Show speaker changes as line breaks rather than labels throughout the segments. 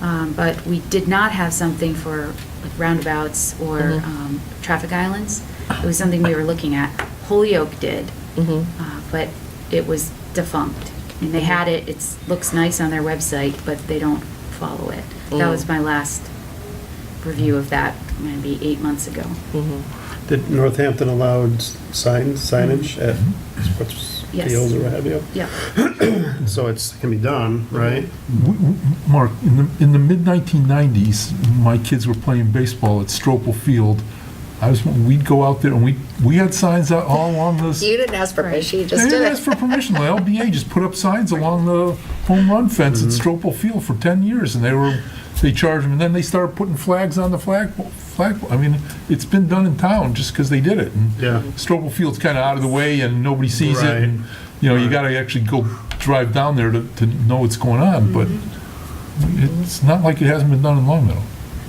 Um, But we did not have something for like roundabouts or
Mhm.
um, traffic islands. It was something we were looking at. Holyoke did,
Mhm.
uh, but it was defunct. And they had it, it looks nice on their website, but they don't follow it. That
Mm.
was my last review of that, maybe eight months ago.
Mhm.
Did Northampton allowed signs, signage
Mm-hmm.
at sports
Yes.
fields or what have you?
Yeah.
Mm-hmm.
So it's, can be done, right?
W- w- Mark, in the, in the mid-1990s, my kids were playing baseball at Stropel Field. I was, we'd go out there and we, we had signs out all along the.
You didn't ask for permission, you just
They
did
didn't ask
it.
for permission. The LBA just put up signs along the home run fence at Stropel Field for 10 years and they were, they charged them and then they started putting flags on the flag, flag, I mean, it's been done in town just because they did it. And
Yeah.
Stropel Field's kind of out of the way and nobody sees it.
Right.
and You know, you got to actually go drive down there to, to know what's going on, but it's not like it hasn't been done in Long Meadow.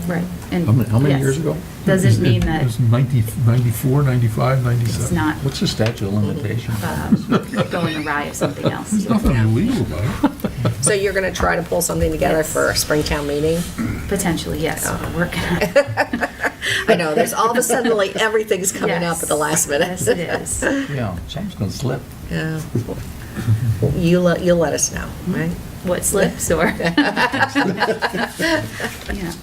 Right. And
How many, how many
yes.
years ago?
Doesn't mean that-
It was 90 94, 95, 97.
It's not
What's the statute of limitations?
um, going awry of something else.
There's nothing illegal about it.
So you're going to try to pull something together for a Springtown meeting?
Potentially, yes. We're working on it.
I know, there's all of a sudden, like, everything's coming up at the
Yes.
last minute.
Yes, it is.
Yeah, something's gonna slip.
Yeah. You let, you'll let us know,
Mm-hmm.
right?
What slips or? Yeah.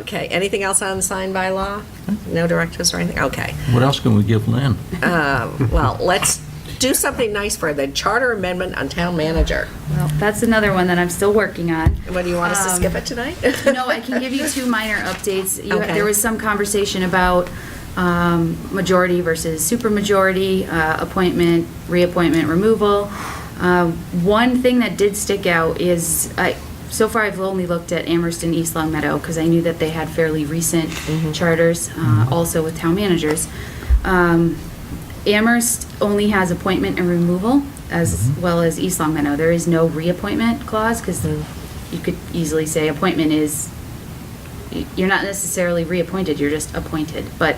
Okay, anything else on sign by law? No directives or anything? Okay. um,
What else can we give Lynn?
Well, let's do something nice for the charter amendment on town manager.
Well, that's another one that I'm still working on.
What, do you want us to
Um,
skip it tonight?
No, I can give you two minor updates. You-
Okay.
There was some conversation about um, majority versus supermajority, uh, appointment, reappointment, removal. Um, One thing that did stick out is, I- so far I've only looked at Amherst and East Long Meadow because I knew that they had fairly recent charters, uh, also with town managers. Um, Amherst only has appointment and removal as well as East Long Meadow. There is no reappointment clause because you could easily say appointment is, y- you're not necessarily reappointed, you're just appointed. But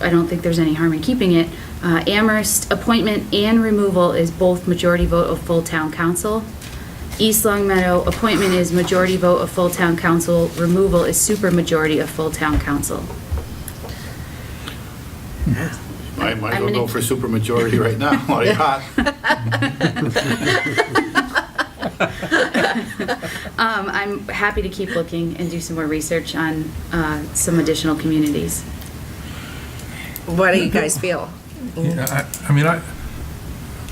I don't think there's any harm in keeping it. Uh, Amherst, appointment and removal is both majority vote of full town council. East Long Meadow, appointment is majority vote of full town council, removal is super majority of full town council.
I might as
I'm
well
gonna-
go for supermajority right now, while you're hot.
Um, I'm happy to keep looking and do some more research on uh, some additional communities.
What do you guys feel?
Yeah, I, I mean, I,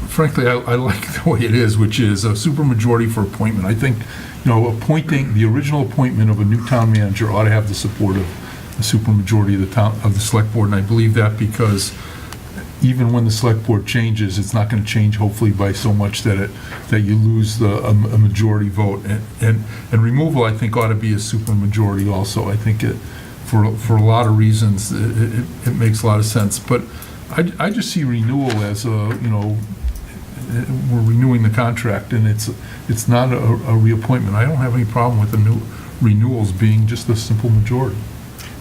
frankly, I, I like the way it is, which is a supermajority for appointment. I think, you know, appointing, the original appointment of a new town manager ought to have the support of the supermajority of the town, of the select board, and I believe that because even when the select board changes, it's not going to change hopefully by so much that it, that you lose the, a a majority vote. And- And, and removal, I think, ought to be a supermajority also. I think it, for, for a lot of reasons, it, it- it makes a lot of sense. But I, I just see renewal as a, you know, eh, we're renewing the contract and it's, it's not a, a reappointment. I don't have any problem with the new renewals being just a simple majority.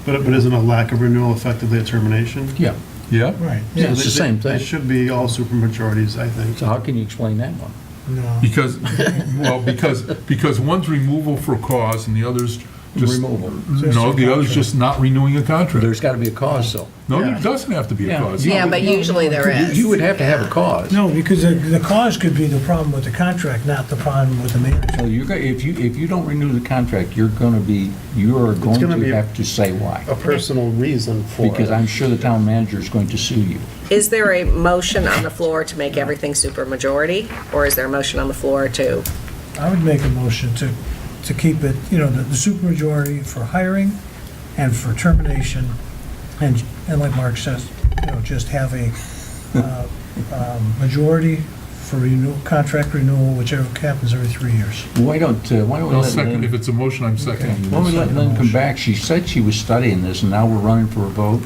But, but isn't a lack of renewal effectively a termination?
Yeah.
Yeah?
Right.
Yeah, it's
So they-
the same
they- They
thing.
should be all supermajorities, I think.
So how can you explain that one?
No.
Because, well, because, because one's removal for cause and the other's just,
Removal.
no, the other's just not renewing a contract.
There's gotta be a cause, though.
No, there doesn't have to be a
Yeah.
cause.
Yeah, but usually there
You-
is.
You would have to have a cause.
No, because the- the cause could be the problem with the contract, not the problem with the manager.
So you're, go- if you, if you don't renew the contract, you're gonna be, you are going
gonna be
to
a-
have to say why.
A personal reason for it.
Because I'm sure the town manager is going to sue you.
Is there a motion on the floor to make everything supermajority? Or is there a motion on the floor to,
I would make a motion to, to keep it, you know, the the supermajority for hiring and for termination, and, and like Mark says, you know, just have a uh, um, majority for renewal, contract renewal, whichever happens every three years.
Why don't, uh, why don't we
I'll
let
second, if
Lynn,
it's a motion, I'm seconding.
why don't we let Lynn come back? She said she was studying this, and now we're running for a vote?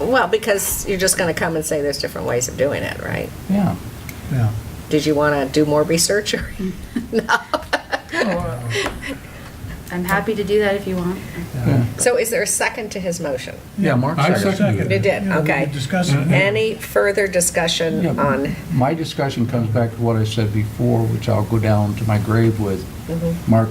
well, because you're just going to come and say there's different ways of doing it, right?
Yeah.
Yeah.
Did you want to do more research? or-
I'm happy to do that if you want.
So is there a second to his motion?
Yeah, Mark
I
seconded
seconded
it.
You did,
Yeah, we
okay.
were discussing it.
Any further discussion
Yeah.
on,
My discussion comes back to what I said before, which I'll go down to my grave with. Mark